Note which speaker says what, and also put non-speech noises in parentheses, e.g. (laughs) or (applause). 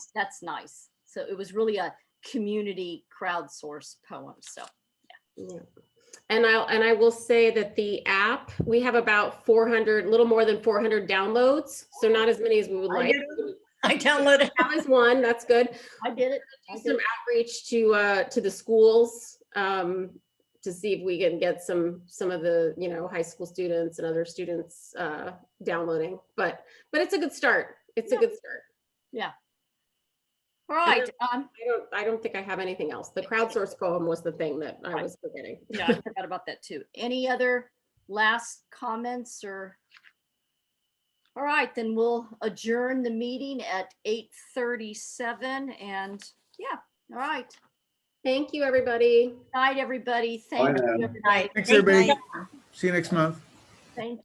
Speaker 1: that's nice. So it was really a community crowdsourced poem. So
Speaker 2: Yeah. And I'll, and I will say that the app, we have about four hundred, little more than four hundred downloads, so not as many as we would
Speaker 1: I
Speaker 2: like.
Speaker 1: did it. (laughs)
Speaker 3: I downloaded it.
Speaker 2: That was one, that's good.
Speaker 1: I did it. (laughs) I did
Speaker 2: Some
Speaker 1: it.
Speaker 2: outreach to, uh, to the schools, um, to see if we can get some, some of the, you know, high school students and other students, uh, downloading. But, but it's a good start. It's a
Speaker 1: Yeah.
Speaker 2: good start.
Speaker 1: All right. Um,
Speaker 2: I don't, I don't think I have anything else. The crowdsourced poem was the thing that I
Speaker 1: Right.
Speaker 2: was forgetting.
Speaker 1: yeah, I forgot about that too. Any other last comments or? All right, then we'll adjourn the meeting at eight thirty-seven and yeah, all right.
Speaker 2: Thank you, everybody.
Speaker 1: Night, everybody. Thank you,
Speaker 4: now.
Speaker 1: everybody.
Speaker 3: Thanks,
Speaker 4: everybody.
Speaker 3: everybody.
Speaker 4: See you next month.
Speaker 1: Thank